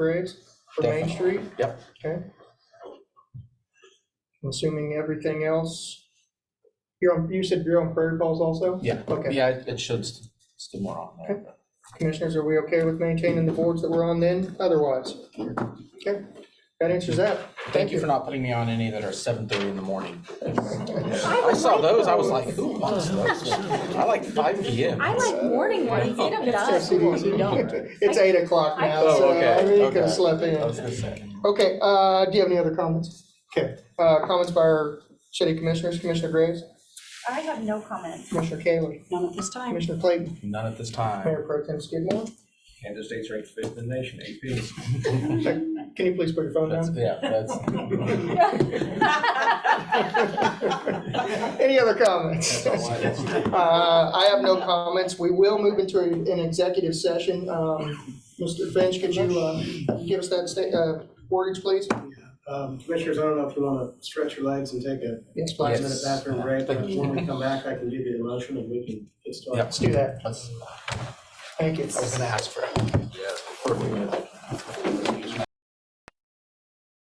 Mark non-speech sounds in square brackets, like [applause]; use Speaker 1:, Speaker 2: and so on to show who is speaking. Speaker 1: parades for Main
Speaker 2: Definitely.
Speaker 1: Street?
Speaker 2: Yep.
Speaker 1: Okay. Assuming everything else, you're on, you said you're on Prairie Falls also?
Speaker 2: Yeah,
Speaker 1: Okay.
Speaker 2: yeah, it- it should st- still more on there. but-
Speaker 1: Commissioners, are we okay with maintaining the boards that we're on then, otherwise? Okay, that answers that.
Speaker 2: Thank you for not putting me on any that are seven thirty in the [laughs] morning.
Speaker 3: I
Speaker 2: I
Speaker 3: would
Speaker 2: saw
Speaker 3: like
Speaker 2: those, I was like, who wants those? I like five P M.
Speaker 3: I like morning ones, get them
Speaker 1: It's
Speaker 3: done.
Speaker 1: CDC. [laughs] It's eight o'clock now,
Speaker 2: Oh,
Speaker 1: so
Speaker 2: okay,
Speaker 1: I mean, you could
Speaker 2: okay.
Speaker 1: have slept in.
Speaker 2: I was gonna say.
Speaker 1: Okay, uh, do you have any other comments? Okay, uh, comments by our city commissioners, Commissioner Graves,
Speaker 3: I have no comment.
Speaker 1: Commissioner Kaylee,
Speaker 3: None at this [laughs] time.
Speaker 1: Commissioner Clayton,
Speaker 2: None at this time.
Speaker 1: Mayor Pro Tem Skidmore.
Speaker 4: Kansas State's ranked fifth in the nation, AP.
Speaker 1: Can you please put your phone
Speaker 2: That's,
Speaker 1: down?
Speaker 2: yeah, that's. [laughs]
Speaker 1: Any other comments?
Speaker 2: [laughs]
Speaker 1: Uh, I have no comments. We will move into an executive session. Um, Mr. Finch, could you, uh, give us that state, uh, words, please?
Speaker 5: Um, Commissioners, I don't know if you want to stretch your legs and take a
Speaker 1: Yes, please.
Speaker 5: five-minute
Speaker 2: Yes.
Speaker 5: bathroom break.
Speaker 2: Thank you.
Speaker 5: When we come back, I can give you the motion and we can get started.
Speaker 2: Yep.
Speaker 1: Let's do that.
Speaker 2: That's-
Speaker 1: Thank you.
Speaker 2: I was gonna ask for. it.